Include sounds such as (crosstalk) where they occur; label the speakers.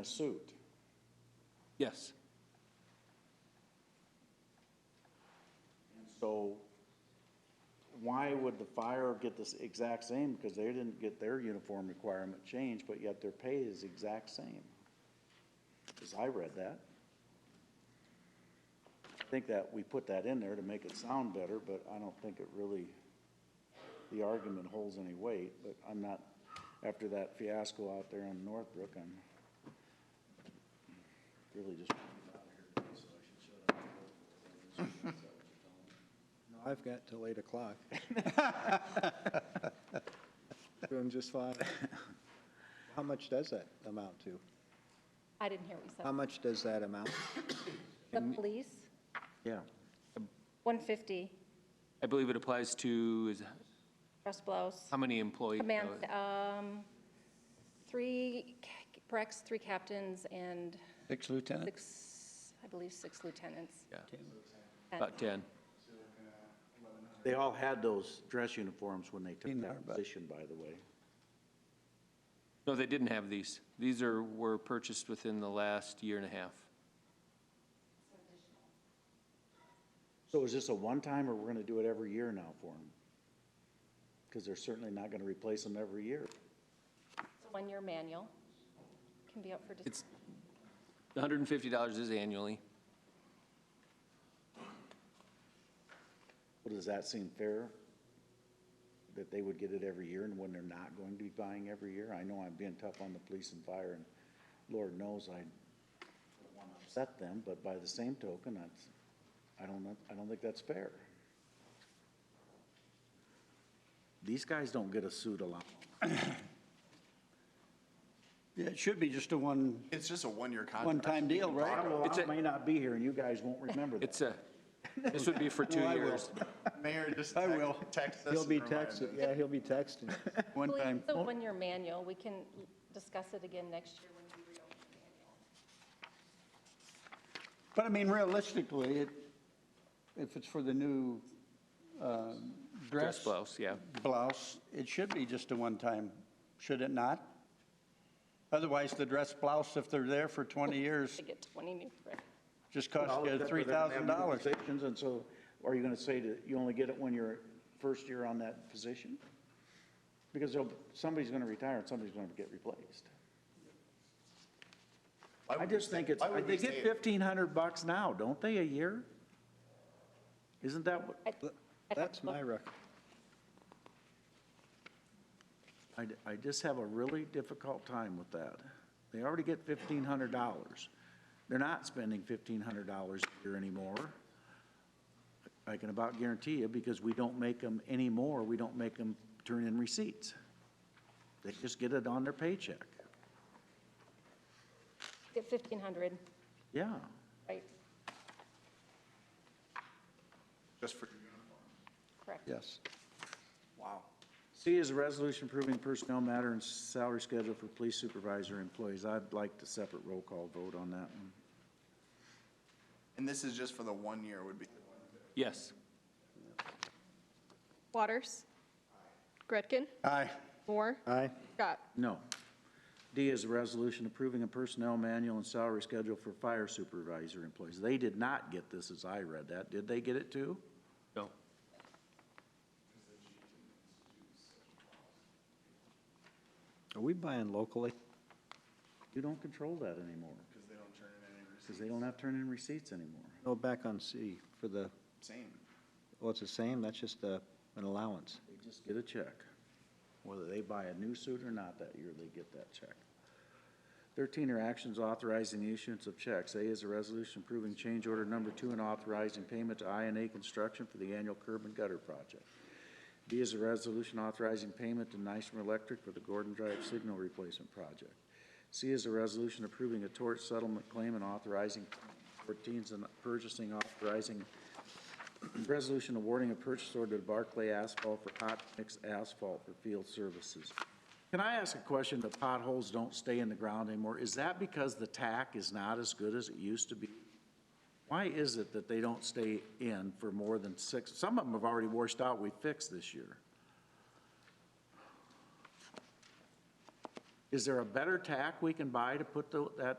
Speaker 1: a suit.
Speaker 2: Yes.
Speaker 1: So why would the fire get this exact same? Because they didn't get their uniform requirement changed, but yet their pay is exact same. As I read that. I think that we put that in there to make it sound better, but I don't think it really, the argument holds any weight. But I'm not, after that fiasco out there in Northbrook, I'm really just
Speaker 3: I've got till 8 o'clock. Doing just fine. How much does that amount to?
Speaker 4: I didn't hear what you
Speaker 2: Um,
Speaker 3: How
Speaker 4: said.
Speaker 3: much does that amount?
Speaker 4: The police,
Speaker 1: Yeah.
Speaker 4: 150,
Speaker 2: I believe it applies to, is,
Speaker 4: Russ Blows.
Speaker 2: how many employees?
Speaker 4: Command, um, three ca- brex, three captains, and
Speaker 5: Six lieutenant?
Speaker 4: six, I believe, six lieutenants.
Speaker 2: Yeah,
Speaker 4: And
Speaker 2: About 10.
Speaker 1: They all had those dress uniforms when they took
Speaker 5: In our
Speaker 1: that
Speaker 5: bu-
Speaker 1: position, by the way.
Speaker 2: No, they didn't have these. These are, were purchased within the last year and a half.
Speaker 1: So is this a one-time, or we're gonna do it every year now for them? Because they're certainly not gonna replace them every year.
Speaker 4: it's a One-year manual, can be up for, dis-
Speaker 2: It's, $150 is annually.
Speaker 1: Well, does that seem fair? That they would get it every year, and when they're not going to be buying every year? I know I'm being tough on the police and fire, and Lord knows I don't wanna upset them, but by the same token, that's, I don't, know- I don't think that's fair. These guys don't get a suit allowance.
Speaker 5: Yeah, it should be just a one,
Speaker 6: It's just a one-year contract.
Speaker 5: one-time deal, right?
Speaker 1: Well,
Speaker 2: It's
Speaker 1: I
Speaker 2: a-
Speaker 1: may not be here, and you guys won't remember that.
Speaker 2: It's a, this would be for two
Speaker 5: Well, I will.
Speaker 2: years.
Speaker 6: (laughs) Mayor, just
Speaker 5: I
Speaker 6: text-
Speaker 5: will.
Speaker 6: text us.
Speaker 3: He'll
Speaker 6: and
Speaker 3: be
Speaker 6: remind
Speaker 3: texting,
Speaker 6: us.
Speaker 3: yeah, he'll be texting.
Speaker 4: Well,
Speaker 5: One-time,
Speaker 4: it's a one-year manual, we can discuss it again next year when we reopen the manual.
Speaker 5: but I mean realistically, it, if it's for the new, um, dress.
Speaker 2: Dress blouse, yeah.
Speaker 5: Blouse, it should be just a one-time, should it not? Otherwise, the dress blouse, if they're there for twenty years,
Speaker 4: To get 20 new, right.
Speaker 5: just costs
Speaker 1: Well,
Speaker 5: you
Speaker 1: that's
Speaker 5: three
Speaker 1: where they're gonna
Speaker 5: thousand
Speaker 1: have
Speaker 5: dollars.
Speaker 1: Positions, and so are you gonna say that you only get it when you're first year on that position? Because they'll- somebody's gonna retire and somebody's gonna get replaced.
Speaker 6: Why
Speaker 1: I
Speaker 6: would we
Speaker 1: just
Speaker 6: say-
Speaker 1: think it's,
Speaker 6: why would
Speaker 1: they
Speaker 6: we
Speaker 1: get
Speaker 6: say-
Speaker 1: fifteen hundred bucks now, don't they, a year? Isn't that what,
Speaker 3: That's my record.
Speaker 1: I, I just have a really difficult time with that. They already get fifteen hundred dollars. They're not spending fifteen hundred dollars a year anymore. I can about guarantee you, because we don't make them anymore, we don't make them turn in receipts. They just get it on their paycheck.
Speaker 4: Get 1,500,
Speaker 1: Yeah,
Speaker 4: right,
Speaker 6: Just for,
Speaker 4: correct.
Speaker 5: Yes.
Speaker 6: wow.
Speaker 1: C is a resolution approving personnel matter and salary schedule for police supervisor employees. I'd like to separate roll call vote on that one.
Speaker 6: And this is just for the one year would be.
Speaker 2: Yes.
Speaker 7: Waters. Gretkin.
Speaker 5: Aye.
Speaker 7: Moore.
Speaker 3: Aye.
Speaker 7: Scott.
Speaker 1: No. D is a resolution approving a personnel manual and salary schedule for fire supervisor employees. They did not get this as I read that. Did they get it too?
Speaker 2: No.
Speaker 3: Are we buying locally?
Speaker 1: You don't control that anymore. Because they don't turn in any receipts. Because they don't have to turn in receipts anymore.
Speaker 3: No, back on C for the,
Speaker 6: Same.
Speaker 3: well, it's the same, that's just uh, an allowance.
Speaker 1: They just get a check. Whether they buy a new suit or not that year, they get that check. Thirteen are actions authorizing the issuance of checks. A is a resolution approving change order number two and authorizing payment to I and A Construction for the annual curb and gutter project. B is a resolution authorizing payment to Nysom Electric for the Gordon Drive signal replacement project. C is a resolution approving a tort settlement claim and authorizing fourteens and purchasing authorizing Resolution awarding a purchase order to Barclay Asphalt for hot mix asphalt for field services. Can I ask a question? The potholes don't stay in the ground anymore. Is that because the tack is not as good as it used to be? Why is it that they don't stay in for more than six? Some of them have already washed out, we fixed this year. Is there a better tack we can buy to put the- that